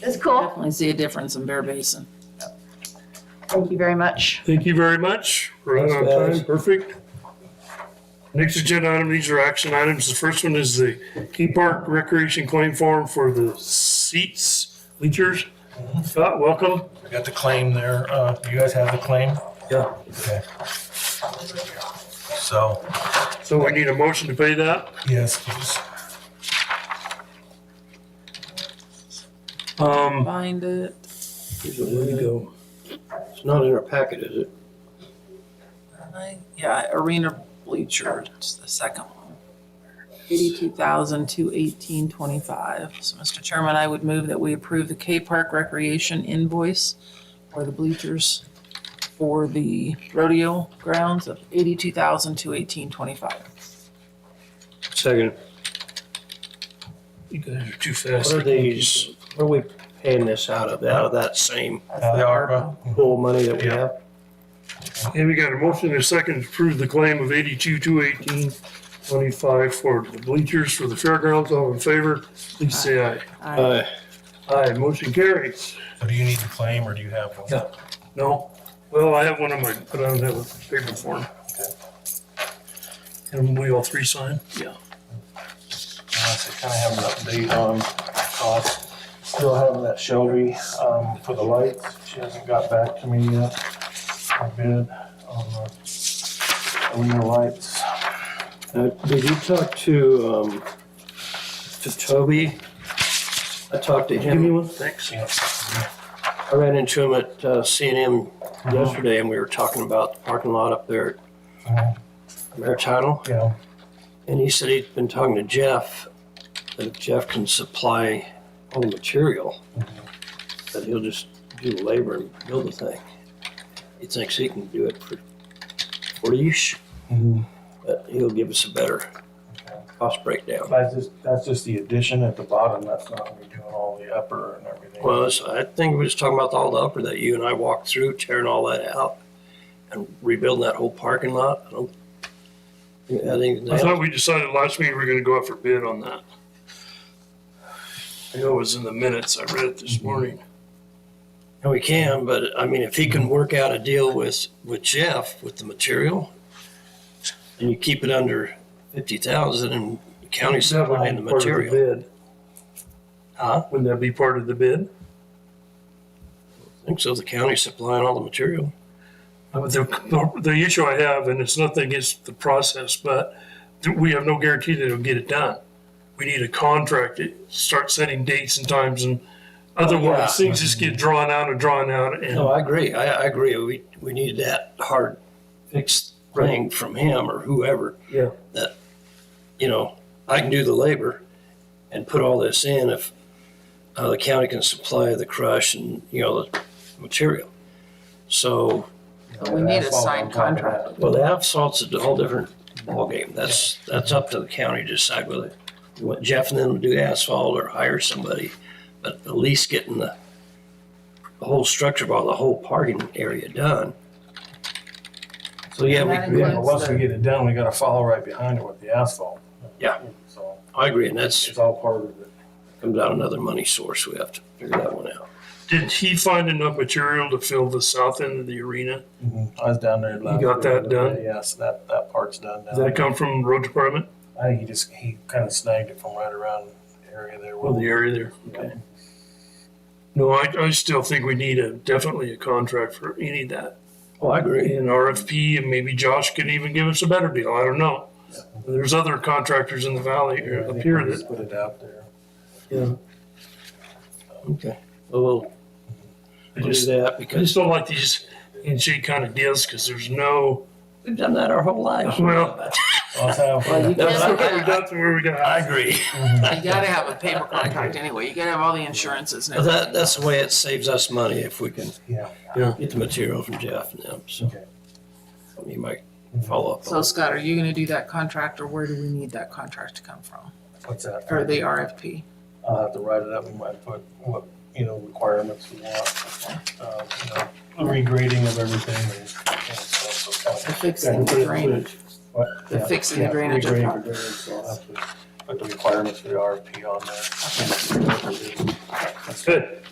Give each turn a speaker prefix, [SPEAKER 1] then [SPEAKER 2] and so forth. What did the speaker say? [SPEAKER 1] That's cool.
[SPEAKER 2] Definitely see a difference in Bear Basin.
[SPEAKER 1] Thank you very much.
[SPEAKER 3] Thank you very much. We're out on
[SPEAKER 4] Thanks, guys.
[SPEAKER 3] time, perfect. Next agenda item, these are action items. The first one is the Key Park Recreation Claim Form for the seats, bleachers. Scott, welcome.
[SPEAKER 5] Got the claim there. Uh, you guys have the claim?
[SPEAKER 4] Yeah.
[SPEAKER 5] Okay. So,
[SPEAKER 3] So we need a motion to pay that.
[SPEAKER 5] yes, please.
[SPEAKER 3] Um,
[SPEAKER 2] Find it.
[SPEAKER 4] Here's a window. It's not in our packet, is it?
[SPEAKER 2] Yeah, Arena Bleacher, it's the second one. Eighty-two thousand, two eighteen, twenty-five. So, Mr. Chairman, I would move that we approve the K-Park Recreation invoice for the bleachers for the rodeo grounds of eighty-two thousand, two eighteen, twenty-five.
[SPEAKER 4] Second.
[SPEAKER 3] you guys are too fast.
[SPEAKER 4] What are these, what are we paying this out of, out of that same
[SPEAKER 5] Uh, the ARPA.
[SPEAKER 4] pool of money that we
[SPEAKER 3] Yeah.
[SPEAKER 4] have?
[SPEAKER 3] And we got a motion and a second to approve the claim of eighty-two, two eighteen, twenty-five for the bleachers for the fairgrounds. All in favor, please say aye.
[SPEAKER 4] Uh,
[SPEAKER 3] Aye, motion carries.
[SPEAKER 5] So do you need the claim or do you have one?
[SPEAKER 4] Yeah.
[SPEAKER 3] No. Well, I have one on my, but I don't have a paper form. And we all three sign? Yeah.
[SPEAKER 5] Unless I kind of have an update on costs. Still having that Shelby, um, for the lights. She hasn't got back to me yet. I bid on the arena lights.
[SPEAKER 4] uh, Did you talk to, um, to Toby? I talked to
[SPEAKER 3] Give me
[SPEAKER 4] him,
[SPEAKER 3] one, thanks.
[SPEAKER 5] Yeah.
[SPEAKER 4] I ran into him at uh, C and M
[SPEAKER 3] Uh-huh.
[SPEAKER 4] yesterday and we were talking about the parking lot up there
[SPEAKER 3] Uh-huh.
[SPEAKER 5] Mhm.
[SPEAKER 4] at Maritidal.
[SPEAKER 5] Yeah.
[SPEAKER 4] And he said he'd been talking to Jeff, that if Jeff can supply all the material, that he'll just do the labor and build the thing. He thinks he can do it for forty-ish,
[SPEAKER 5] Mhm.
[SPEAKER 4] but he'll give us a better cost breakdown.
[SPEAKER 5] That's just, that's just the addition at the bottom. That's not gonna be doing all the upper and everything.
[SPEAKER 4] Well, it's- I think we was talking about all the upper that you and I walked through, tearing all that out and rebuilding that whole parking lot. I don't, I think,
[SPEAKER 3] I thought we decided last meeting we were gonna go out for bid on that. I know it was in the minutes. I read it this morning.
[SPEAKER 4] And we can, but I mean, if he can work out a deal with, with Jeff with the material and you keep it under fifty thousand and the county supplying the
[SPEAKER 3] Part of
[SPEAKER 4] material.
[SPEAKER 3] bid.
[SPEAKER 4] Huh?
[SPEAKER 3] Wouldn't that be part of the bid?
[SPEAKER 4] I think so, the county supplying all the material.
[SPEAKER 3] Uh, The, the issue I have, and it's nothing against the process, but we have no guarantee that it'll get it done. We need a contract to start setting dates and times and otherwise
[SPEAKER 4] Yeah.
[SPEAKER 3] things just get drawn out and drawn out
[SPEAKER 4] No,
[SPEAKER 3] and
[SPEAKER 4] I agree. I, I agree. We, we need that hard fixed thing from him or whoever.
[SPEAKER 3] Yeah.
[SPEAKER 4] That, you know, I can do the labor and put all this in if uh, the county can supply the crush and, you know, the material. So
[SPEAKER 2] But we need a signed contract.
[SPEAKER 4] Well, the asphalt's a whole different ballgame. That's, that's up to the county to decide whether you want Jeff and them to do asphalt or hire somebody. But at least getting the, the whole structure of all the whole parking area done. So yeah, we,
[SPEAKER 5] Yeah, but once we get it done, we gotta follow right behind it with the asphalt.
[SPEAKER 4] Yeah.
[SPEAKER 5] So
[SPEAKER 4] I agree, and that's
[SPEAKER 5] it's all part of it.
[SPEAKER 4] comes out another money source. We have to figure that one out.
[SPEAKER 3] did he find enough material to fill the south end of the arena?
[SPEAKER 2] Mm-hmm.
[SPEAKER 5] I was down there. last
[SPEAKER 3] got
[SPEAKER 5] year.
[SPEAKER 3] that done?
[SPEAKER 5] Yes, that, that part's done
[SPEAKER 3] Does
[SPEAKER 5] now.
[SPEAKER 3] that come from road department
[SPEAKER 5] I think he just, he kind of snagged it from right around Oh, the area there.
[SPEAKER 3] or the area there? Okay. No, I, I still think we need a, definitely a contract for any of that.
[SPEAKER 4] Oh, I agree.
[SPEAKER 3] an RFP, and maybe Josh could even give us a better deal. I don't know. There's other contractors in the valley
[SPEAKER 5] Yeah,
[SPEAKER 3] or
[SPEAKER 5] I
[SPEAKER 3] up
[SPEAKER 5] think
[SPEAKER 3] here
[SPEAKER 5] we
[SPEAKER 3] that.
[SPEAKER 5] just Put it out there.
[SPEAKER 4] Okay. Well, we'll-
[SPEAKER 3] I
[SPEAKER 4] we'll do
[SPEAKER 3] just,
[SPEAKER 4] that
[SPEAKER 3] I
[SPEAKER 4] because
[SPEAKER 3] just don't like these handshake kind of deals because there's no,
[SPEAKER 4] we've done that our whole lives.
[SPEAKER 3] Well-
[SPEAKER 5] All time
[SPEAKER 2] Well, you
[SPEAKER 5] for-
[SPEAKER 4] No,
[SPEAKER 2] gotta,
[SPEAKER 3] we're not to where we got.
[SPEAKER 4] I agree.
[SPEAKER 5] Mm-hmm.
[SPEAKER 2] you gotta have a paper contract anyway. You gotta have all the insurances and
[SPEAKER 4] Well,
[SPEAKER 2] everything.
[SPEAKER 4] That, that's the way it saves us money if we can
[SPEAKER 5] Yeah.
[SPEAKER 4] get the material from Jeff and them, so.
[SPEAKER 5] Okay.
[SPEAKER 4] You might follow up.
[SPEAKER 2] So
[SPEAKER 4] on
[SPEAKER 2] Scott, are you gonna do that contract or where do we need that contract to come from?
[SPEAKER 5] What's
[SPEAKER 2] Or
[SPEAKER 5] that?
[SPEAKER 2] the RFP?
[SPEAKER 5] I'll have to write it up. We might put what, you know, requirements we want. um, you know, Regrading of everything and and stuff. so it's
[SPEAKER 2] The
[SPEAKER 5] kind of-
[SPEAKER 2] fixing the drainage,
[SPEAKER 5] What?
[SPEAKER 2] the
[SPEAKER 5] Yeah.
[SPEAKER 2] fixing the
[SPEAKER 5] Yeah,
[SPEAKER 2] drainage of
[SPEAKER 5] regrading
[SPEAKER 2] pro-
[SPEAKER 5] for drainage, so I'll have to Put the requirements for the RFP on there.
[SPEAKER 3] That's good.